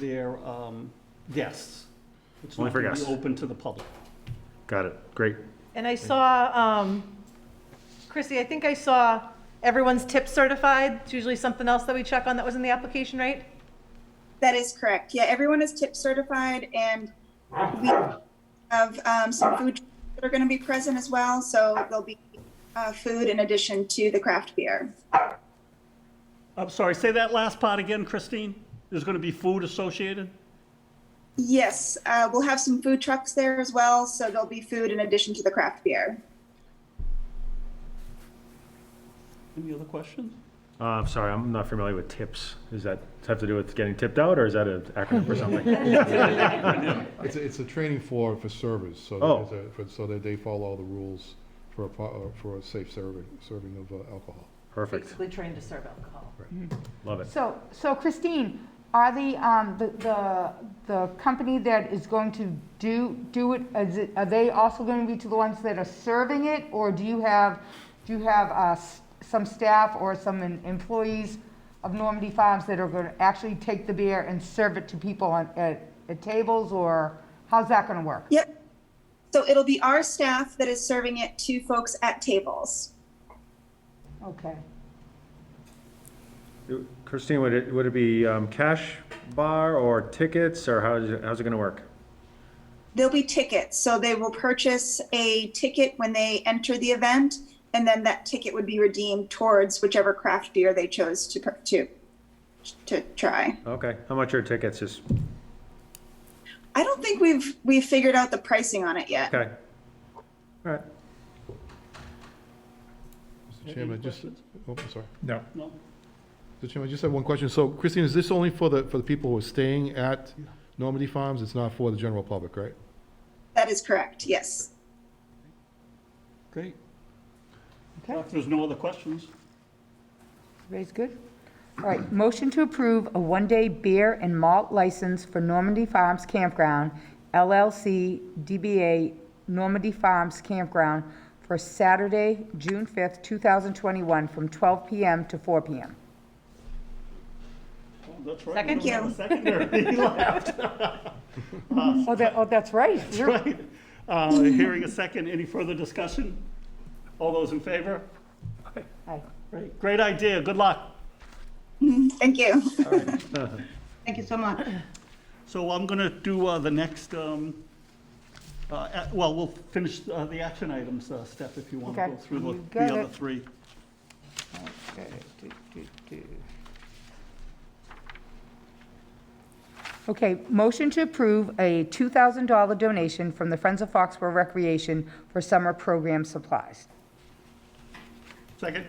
their um, guests. It's Only not for gonna be guests. Open to the public. Got it. Great. And I saw, um, Chrissy, I think I saw everyone's tip certified. It's usually something else that we check on that was in the application, right? That is correct. Yeah, everyone is tip certified and we have um, some food trucks that are going to be present as well. So there'll be uh, food in addition to the craft beer. I'm sorry, say that last part again, Christine? There's gonna be food associated? Yes, uh, we'll have some food trucks there as well. So there'll be food in addition to the craft beer. Any other questions? Uh, I'm sorry, I'm not familiar with tips. Does that have to do with getting tipped out, or is that an acronym for something? It's, a- it's a training for, for servers, so Oh. that, there's a- for- so that they follow all the rules for a, pro- uh, for a safe serving, serving of uh, alcohol. Perfect. Basically trained to serve alcohol. Love it. So, so Christine, are the, um, the, the, the company that is going to do, do it, is it, are they also going to be to the ones that are serving it? Or do you have, do you have, uh, s- some staff or some em- employees of Normandy Farms that are going to actually take the beer and serve it to people on, at, at tables? Or how's that going to work? Yep. So it'll be our staff that is serving it to folks at tables. Okay. Christine, would it, would it be um, cash bar or tickets, or how's, it- how's it gonna work? There'll be tickets, so they will purchase a ticket when they enter the event, and then that ticket would be redeemed towards whichever craft beer they chose to pur- to to try. Okay, how much are tickets? Just, I don't think we've we've figured out the pricing on it yet. okay. All right. Mr. Chairman, I just, questions? oh, I'm sorry. No. No? Mr. Chairman, I just have one question. So Christine, is this only for the, for the people who are staying at Normandy Farms? It's not for the general public, right? That is correct. Yes. Great. Okay. If there's no other questions, Everybody's good? All right, motion to approve a one-day beer and malt license for Normandy Farms Campground LLC DBA Normandy Farms Campground for Saturday, June 5th, 2021, from 12 PM to 4 PM. oh, that's right. Second. we don't have a Secondary, he laughed. Oh, that, oh, that's right. You're- Right. Uh, Hearing a second, any further discussion? All those in favor? Hi. Great, great idea, good luck. Thank you. Thank you so much. So I'm going to do uh, the next, um, uh, a- well, we'll finish uh, the action items, uh, Steph, if you want to Okay. go through You the- got the other it. three. Okay, do, do, do. Okay, motion to approve a $2,000 donation from the Friends of Foxborough Recreation for summer program supplies. Second?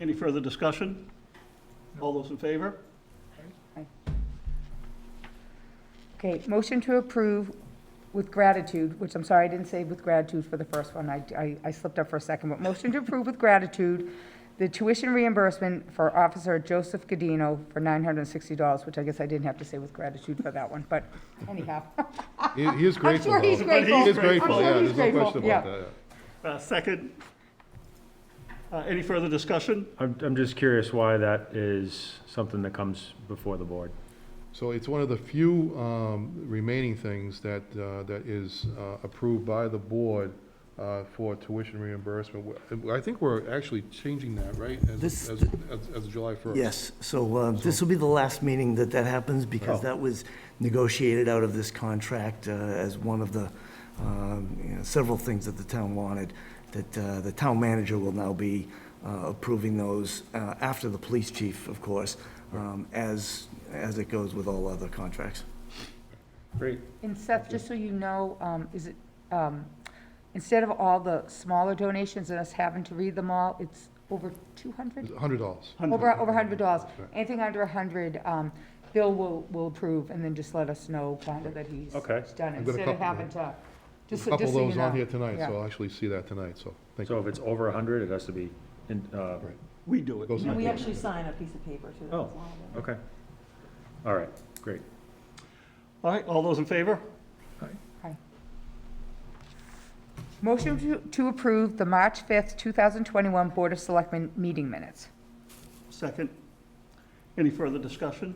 Any further discussion? All those in favor? Okay, motion to approve with gratitude, which I'm sorry, I didn't say with gratitude for the first one. I- I, I slipped up for a second, but motion to approve with gratitude the tuition reimbursement for Officer Joseph Gadino for $960, which I guess I didn't have to say with gratitude for that one, but anyhow. He, he is I'm grateful. sure he's though. grateful. He is grateful, I'm yeah, sure he's there's no grateful, question yeah. about that. yeah. Uh, Second? Uh, Any further discussion? I'm, I'm just curious why that is something that comes before the board. So it's one of the few um, remaining things that, uh, that is uh, approved by the board uh, for tuition reimbursement. We- I think we're actually changing that, right? as- This- As, as- as of July 1st. Yes, so uh, this will be the last meeting that that happens because that was negotiated out of this contract uh, as one of the, um, you know, several things that the town wanted, that uh, the town manager will now be uh, approving those, uh, after the police chief, of course, um, as, as it goes with all other contracts. Great. And Seth, just so you know, um, is it, um, instead of all the smaller donations and us having to read them all, it's over 200? $100. Over, over hundred dollars. Anything under a hundred, um, Bill will, will approve and then just let us know kind of that he's Okay. done it, I've got a instead of couple. having to, just, A couple just of so you those know. on here tonight, Yeah. so I'll actually see that tonight, so thank So you. if it's over 100, it has to be, in uh, Right. We do it. Goes in the We book. actually sign a piece of paper too. oh, okay. All right, great. All right, all those in favor? Motion to, to approve the March fifth, two thousand twenty-one Board of Selectmen meeting minutes. Second? Any further discussion?